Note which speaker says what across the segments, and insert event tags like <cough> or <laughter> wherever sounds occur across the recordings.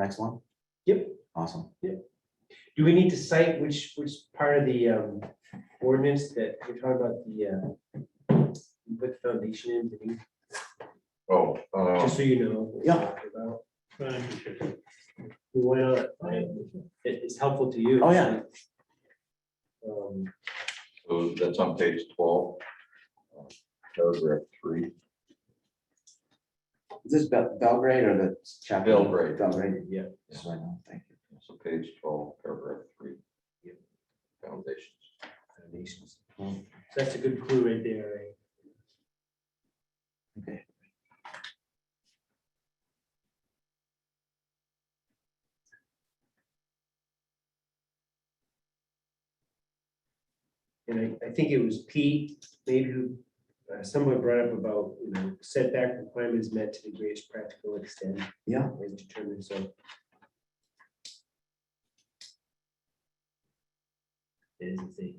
Speaker 1: next one?
Speaker 2: Yep.
Speaker 1: Awesome.
Speaker 2: Do we need to cite which, which part of the um, ordinance that we're talking about the, uh, you put the foundation in, did you-
Speaker 3: Oh, uh,
Speaker 2: just so you know. what we're
Speaker 1: Yeah.
Speaker 2: talking about?
Speaker 4: Thank you, Chief.
Speaker 2: Why not? I- It, it's helpful to you.
Speaker 1: Oh, yeah.
Speaker 2: Um,
Speaker 3: so that's on page twelve. uh, Paragraph three,
Speaker 1: Is this Bel- Belgrade or the chapel?
Speaker 3: Belgrade.
Speaker 1: Belgrade.
Speaker 2: Yeah.
Speaker 1: Just so I know. Thank you.
Speaker 3: so page twelve, paragraph three. Foundations.
Speaker 2: foundations. So That's a good clue right there, right?
Speaker 1: Okay.
Speaker 2: And I, I think it was Pete, maybe who, uh, someone brought up about, you know, setback requirements met to the greatest practical extent.
Speaker 1: Yeah.
Speaker 2: As determined, so. It is a thing.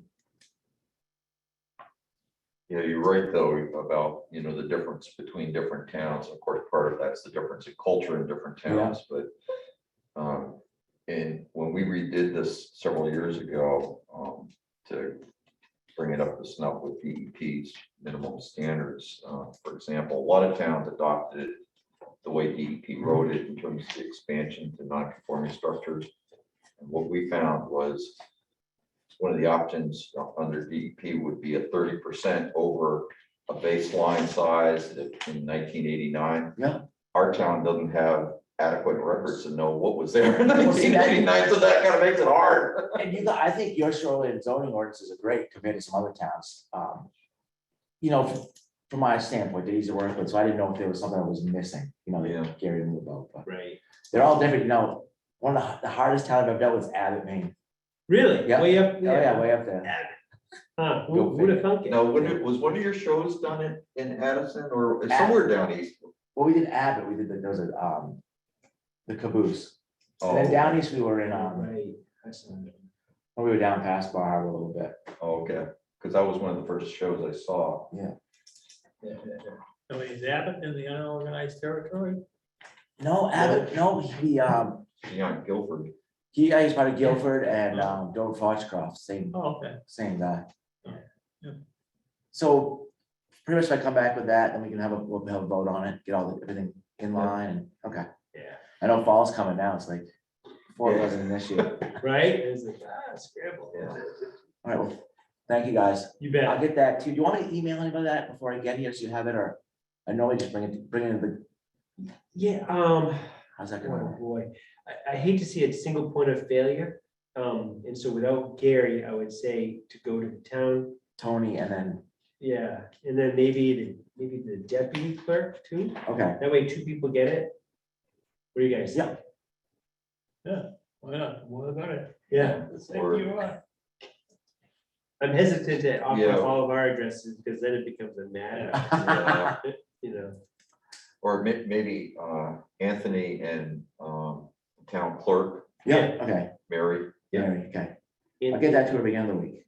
Speaker 3: Yeah, you're right, though, about, you know, the difference between different towns. Of course, part of that's the difference in culture in different towns, but. um, And when we redid this several years ago, um, to bring it up to snuff with DEP's minimum standards, uh, for example, a lot of towns adopted. it The way DEP wrote it in terms of the expansion to non-conforming structures. And what we found was one of the options under DEP would be a thirty percent over a baseline size that in nineteen eighty-nine.
Speaker 1: Yeah.
Speaker 3: Our town doesn't have adequate records to know what was
Speaker 1: <laughs>
Speaker 3: there in
Speaker 1: Well, see,
Speaker 3: nineteen
Speaker 1: that-
Speaker 3: eighty-nine, so that kind of makes it hard.
Speaker 1: And you, got- I think your shoreline zoning ordinance is a great compared to some other towns. Um, You know, f- from my standpoint, they're easy to work with, so I didn't know if there was something I was missing, you know,
Speaker 3: Yeah.
Speaker 1: that Gary knew about, but
Speaker 2: Right.
Speaker 1: they're all different, you know. One of the h- the hardest towns I've dealt with is Abbott, Maine.
Speaker 2: Really?
Speaker 1: Yeah.
Speaker 2: Way up
Speaker 1: Oh,
Speaker 2: there?
Speaker 1: yeah, way up there.
Speaker 2: Huh,
Speaker 1: Go
Speaker 2: who, would have thunk it?
Speaker 3: Now, when it, was one of your shows done in, in Addison or somewhere down east?
Speaker 1: Well, we did Abbott, we did, the- there was a, um, the caboose. And then
Speaker 3: Oh,
Speaker 1: down east, we were in, um,
Speaker 2: Right. I saw that.
Speaker 1: we were down past Bar Harbor a little bit.
Speaker 3: Oh, okay, because that was one of the first shows I saw.
Speaker 2: Yeah, yeah, yeah.
Speaker 4: So is Abbott in the unorganized territory?
Speaker 1: No, Abbott, no, he, um,
Speaker 3: Leon Guilford.
Speaker 1: he, I used part of Guilford and, um, Dover Foxcroft, same,
Speaker 4: Oh, okay.
Speaker 1: same guy.
Speaker 4: Yeah. Yeah.
Speaker 1: So pretty much if I come back with that, then we can have a, we'll have a vote on it, get all, the everything in line, and, okay.
Speaker 4: Yeah.
Speaker 1: I know fall's coming now, it's like, before it
Speaker 3: Yeah.
Speaker 1: wasn't an issue. All
Speaker 2: Right? It was like, ah, scramble.
Speaker 3: Yeah.
Speaker 1: right, well, thank you guys.
Speaker 4: You
Speaker 1: I'll
Speaker 4: bet.
Speaker 1: get that too. Do you want me to email anybody that before I get here, so you have it, or? I normally just bring it, bring it to the,
Speaker 2: Yeah, um,
Speaker 1: how's that gonna
Speaker 2: oh
Speaker 4: Mm.
Speaker 1: work?
Speaker 2: boy, I, I hate to see a single point of failure. Um, and so without Gary, I would say to go to the town,
Speaker 1: Tony and then,
Speaker 2: yeah, and then maybe the, maybe the deputy clerk too.
Speaker 1: okay,
Speaker 2: That way two people get it. What do you guys? think?
Speaker 4: Why not? What about it?
Speaker 2: Yeah,
Speaker 4: Thank
Speaker 3: Or-
Speaker 4: you. uh,
Speaker 2: I'm hesitant to offer
Speaker 3: Yeah.
Speaker 2: up all of our addresses because then it becomes
Speaker 1: <laughs>
Speaker 2: a
Speaker 3: uh,
Speaker 2: matter.
Speaker 1: Yeah.
Speaker 2: You know,
Speaker 3: Or may- maybe uh, Anthony and um, town clerk,
Speaker 1: yeah, okay,
Speaker 3: Mary.
Speaker 2: Yeah.
Speaker 1: Mary, okay. I'll
Speaker 2: and
Speaker 1: get that to her beginning of the week.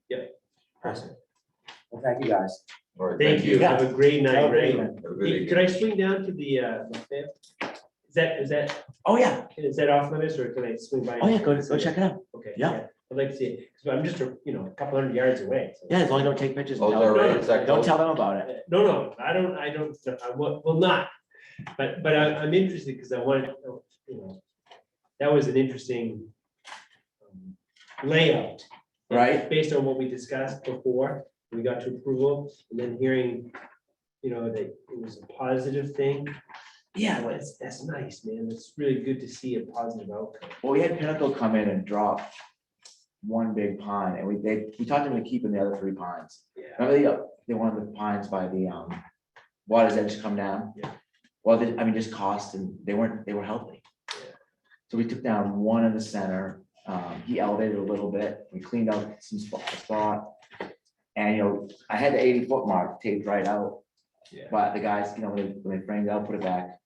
Speaker 2: person.
Speaker 1: Well, thank you guys.
Speaker 3: All right,
Speaker 2: Thank you. Have a great night,
Speaker 1: Have a great
Speaker 2: right?
Speaker 3: Have a good
Speaker 2: Hey,
Speaker 3: evening.
Speaker 2: Could I swing down to the, uh, Lafayette? is that, is that,
Speaker 1: Oh, yeah,
Speaker 2: is that off limits or can I swing by?
Speaker 1: oh, yeah,
Speaker 2: and
Speaker 1: go,
Speaker 2: see
Speaker 1: go check it out.
Speaker 2: Okay.
Speaker 1: Yeah.
Speaker 2: I'd like to see it, because I'm just, a you know, a couple hundred yards away. so-
Speaker 1: Yeah, as long as you don't take pictures.
Speaker 3: Oh, is
Speaker 1: tell
Speaker 3: that
Speaker 1: them-
Speaker 3: right? Is that
Speaker 1: Don't
Speaker 3: close?
Speaker 1: tell them about it.
Speaker 2: Uh, No, no, I don't, I don't, I will, will not, but, but I, I'm interested because I wanted, to, you know, that was an interesting um, layout.
Speaker 1: Right.
Speaker 2: Based on what we discussed before, we got to approval, and then hearing, you know, that it was a positive thing.
Speaker 1: Yeah,
Speaker 2: Well, That's, that's nice, man. It's really good to see a positive outcome.
Speaker 1: Well, we had Pinnacle come in and drop one big pine, and we, they, we talked them into keeping the other three pines.
Speaker 2: Yeah.
Speaker 1: Remember the, they wanted the pines by the, um, water's edge come down?
Speaker 2: Yeah.
Speaker 1: Well, they, I mean, just cost and they weren't, they were healthy.
Speaker 2: Yeah.
Speaker 1: So we took down one in the center, um, he elevated a little bit, we cleaned out some spot, spot. And, you know, I had the eighty foot mark taped right out,
Speaker 2: Yeah.
Speaker 1: but the guys, you know, when they, when they framed it out, put it back,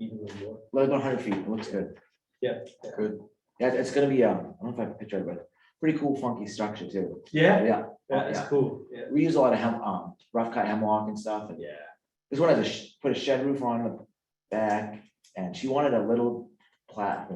Speaker 2: Even more.
Speaker 1: let it go hundred feet, it looks good.
Speaker 3: Good.
Speaker 1: Yeah, it's gonna be, um, I don't know if I can picture it, but pretty cool funky structure too.
Speaker 2: Yeah,
Speaker 1: Yeah,
Speaker 2: that is cool. Oh, Yeah.
Speaker 1: we use a lot of hem, um, rough cut hemlock and stuff. And
Speaker 2: Yeah.
Speaker 1: This one has a, sh- put a shed roof on the back and she wanted a little platform.